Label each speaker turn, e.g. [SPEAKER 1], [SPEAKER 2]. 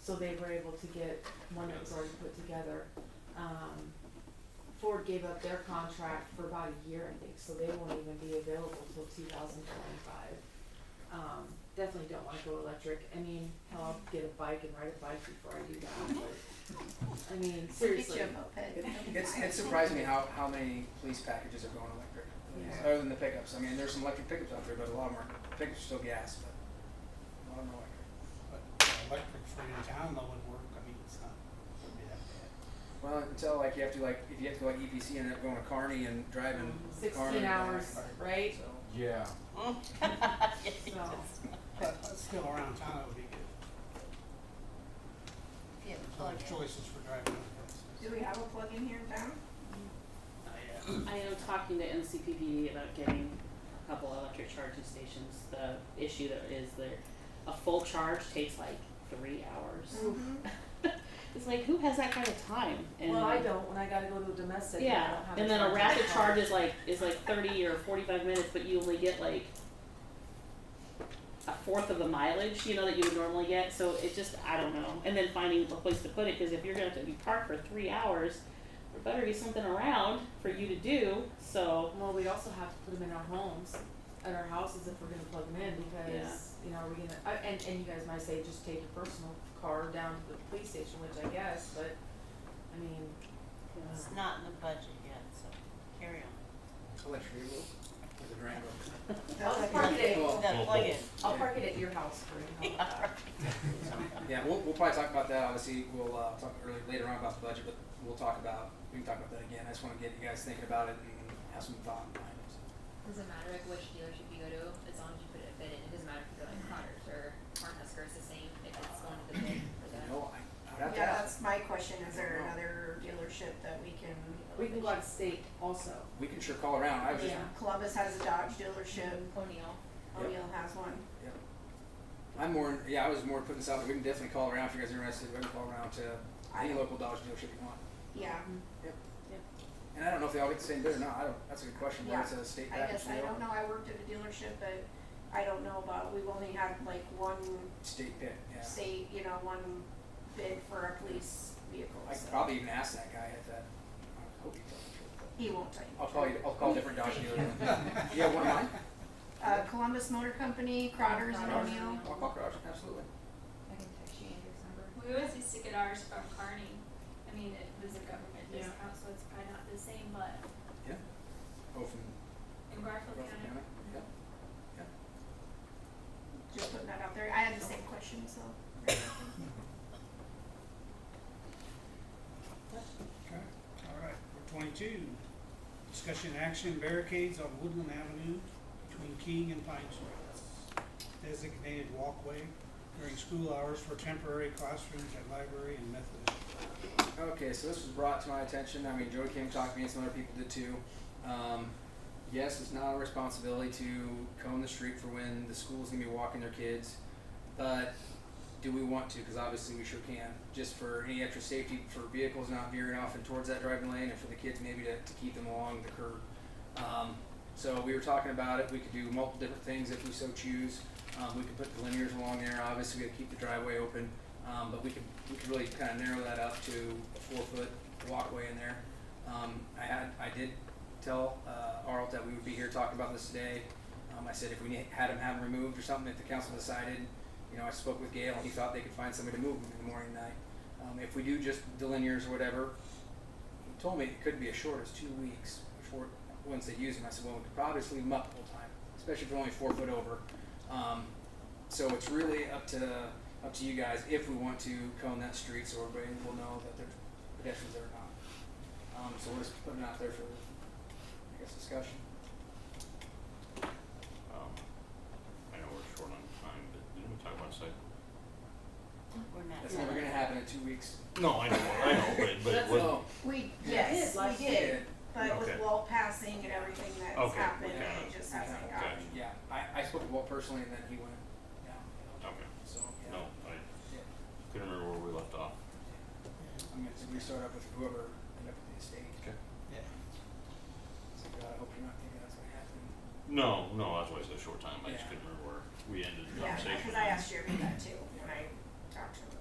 [SPEAKER 1] so they were able to get one that was already put together. Um, Ford gave up their contract for about a year, I think, so they won't even be available till two thousand twenty-five. Um, definitely don't wanna go electric, I mean, hell, I'll get a bike and ride a bike before I do that, but, I mean, seriously.
[SPEAKER 2] moped.
[SPEAKER 3] It's, it surprised me how, how many police packages are going electric,
[SPEAKER 1] Yeah.
[SPEAKER 3] other than the pickups. I mean, there's some electric pickups out there, but a lot of them are, pickups are still gas, but a lot of them are electric.
[SPEAKER 4] But uh, electric for your town though would work, I mean, it's not, wouldn't be that bad.
[SPEAKER 3] Well, until like you have to like, if you have to go like EPC and end up going to Carney and driving
[SPEAKER 1] Mm-hmm.
[SPEAKER 3] Kearney
[SPEAKER 1] Sixteen
[SPEAKER 3] back,
[SPEAKER 1] hours, right?
[SPEAKER 3] so.
[SPEAKER 5] Yeah.
[SPEAKER 1] So,
[SPEAKER 4] But but still around town, that would be good.
[SPEAKER 2] Yeah,
[SPEAKER 4] So
[SPEAKER 2] plug
[SPEAKER 4] there's
[SPEAKER 2] in.
[SPEAKER 4] choices for driving other places.
[SPEAKER 6] Do we have a plug-in here in town?
[SPEAKER 4] I, uh,
[SPEAKER 7] I am talking to NCPD about getting a couple electric charging stations. The issue that is that a full charge takes like three hours. It's like, who has that kind of time? And
[SPEAKER 1] well, I don't, when I gotta go to a domestic, I don't
[SPEAKER 7] Yeah,
[SPEAKER 1] have
[SPEAKER 7] and then a
[SPEAKER 1] charger
[SPEAKER 7] rapid
[SPEAKER 1] car.
[SPEAKER 7] charge is like, is like thirty or forty-five minutes, but you only get like a fourth of the mileage, you know, that you would normally get, so it just, I don't know. And then finding a place to put it, cause if you're gonna have to be parked for three hours, there better be something around for you to do, so.
[SPEAKER 1] Well, we also have to put them in our homes, at our houses if we're gonna plug them in because, you know, are we gonna, uh, and, and you guys might say just take your personal car down to the police station, which I guess, but, I mean,
[SPEAKER 2] It's not in the budget yet, so carry on.
[SPEAKER 3] Electric vehicle with a Durango.
[SPEAKER 6] Oh,
[SPEAKER 1] I'll just park it at,
[SPEAKER 3] Well,
[SPEAKER 2] No, plug in.
[SPEAKER 1] I'll park it at your house for you. How about that?
[SPEAKER 3] Yeah, we'll, we'll probably talk about that, obviously, we'll, uh, talk early, later on about the budget, but we'll talk about, we can talk about that again. I just wanna get you guys thinking about it and have some thought behind it, so.
[SPEAKER 8] Doesn't matter like which dealership you go to, as long as you put it a bid in, it doesn't matter if you go like Connors or Cornhusker, it's the same, if it's going to the bid for them.
[SPEAKER 3] No, I, I would have to
[SPEAKER 6] Yeah,
[SPEAKER 3] ask.
[SPEAKER 6] that's my question, is there another dealership that we can,
[SPEAKER 1] We can go out of state also.
[SPEAKER 3] We can sure call around. I was just,
[SPEAKER 1] Yeah.
[SPEAKER 6] Columbus has a Dodge dealership,
[SPEAKER 8] O'Neill.
[SPEAKER 3] Yep.
[SPEAKER 6] O'Neill has one.
[SPEAKER 3] I'm more, yeah, I was more putting this out. there. We can definitely call around if you guys are interested. We can call around to any local Dodge dealership you want.
[SPEAKER 6] Yeah,
[SPEAKER 3] And I don't know if they all get the same bid or not. I don't, that's a good question. Whether it's a state
[SPEAKER 6] I
[SPEAKER 3] package
[SPEAKER 6] guess, I
[SPEAKER 3] deal,
[SPEAKER 6] don't know, I worked at a dealership, but I don't know about, we've only had like one
[SPEAKER 3] state bid. Yeah,
[SPEAKER 6] state, you know, one bid for a police vehicle,
[SPEAKER 3] I could
[SPEAKER 6] so
[SPEAKER 3] probably even ask that guy if that. I hope he tells the truth. but-
[SPEAKER 6] he won't tell you.
[SPEAKER 3] I'll call you. I'll call different Dodge dealers. yeah, one of mine.
[SPEAKER 6] Uh, Columbus Motor Company, Crotters and
[SPEAKER 8] Crotters.
[SPEAKER 6] O'Neill.
[SPEAKER 3] I'll call Garage. Absolutely.
[SPEAKER 8] I can text you Andrew's number.
[SPEAKER 9] We always used to get ours from Carney. I mean, it was a government
[SPEAKER 1] Yeah.
[SPEAKER 9] discount, so it's probably not the same, but
[SPEAKER 3] Both from
[SPEAKER 9] in Garfield
[SPEAKER 3] Garfield County.
[SPEAKER 9] County.
[SPEAKER 3] Yeah.
[SPEAKER 6] just putting that out there, I had the same question, so.
[SPEAKER 4] okay, all right, for twenty-two, discussion action barricades on Woodland Avenue between King and Pine Streets. Designated walkway during school hours for temporary classrooms at library and Methodist.
[SPEAKER 3] Okay, so this was brought to my attention. I mean, Joey came talking to me, and some other people did too. Um, yes, it's not our responsibility to comb the street for when the school's gonna be walking their kids, but do we want to? Because obviously we sure can. Just for any extra safety for vehicles not veering off and towards that driving lane, and for the kids maybe to, to keep them along the curb. Um, so we were talking about it. We could do multiple different things if we so choose. Um, we could put the linears along there. Obviously, we got to keep the driveway open, um, but we could we could really kind of narrow that up to a four foot walkway in there. Um, I had I did tell uh, Arlt that we would be here talking about this today. Um, I said if we need, had him have him removed or something, if the council decided, you know, I spoke with Gail and he thought they could find somebody to move him in the morning and night. Um, if we do just the linears or whatever, he told me it could be as short as two weeks before once they use them. I said, well, we could probably just leave them up the whole time, especially if they're only four foot over. Um, so it's really up to up to you guys if we want to cone that street so everybody will know that there's pedestrians there or not. Um, so we're just putting it out there for I guess discussion.
[SPEAKER 5] Um, I know we're short on time, but didn't we talk about site?
[SPEAKER 2] We're not.
[SPEAKER 3] That's never gonna happen in two weeks.
[SPEAKER 5] No, I know, I know, but, but
[SPEAKER 1] That's
[SPEAKER 5] what,
[SPEAKER 3] Oh,
[SPEAKER 6] We,
[SPEAKER 3] Yeah.
[SPEAKER 6] yes,
[SPEAKER 1] Last
[SPEAKER 6] we
[SPEAKER 3] yeah,
[SPEAKER 6] did, but with
[SPEAKER 5] Okay.
[SPEAKER 6] wall passing and everything that's
[SPEAKER 5] Okay,
[SPEAKER 6] happened,
[SPEAKER 5] okay.
[SPEAKER 6] it just hasn't
[SPEAKER 3] Okay.
[SPEAKER 6] gotten.
[SPEAKER 3] yeah. I, I spoke to Walt personally and then he went down.
[SPEAKER 5] okay,
[SPEAKER 3] So yeah.
[SPEAKER 5] no, I
[SPEAKER 3] Yeah.
[SPEAKER 5] couldn't remember where we left off.
[SPEAKER 3] I'm gonna restart up with whoever ended up with the estate.
[SPEAKER 5] Okay.
[SPEAKER 4] Yeah.
[SPEAKER 3] So God, I hope you're not thinking that's what happened.
[SPEAKER 5] No, no, that's why it's a short time, I just
[SPEAKER 3] Yeah.
[SPEAKER 5] couldn't remember where we ended the
[SPEAKER 6] Yeah,
[SPEAKER 5] conversation.
[SPEAKER 6] because I asked Jeremy that too, when I talked to him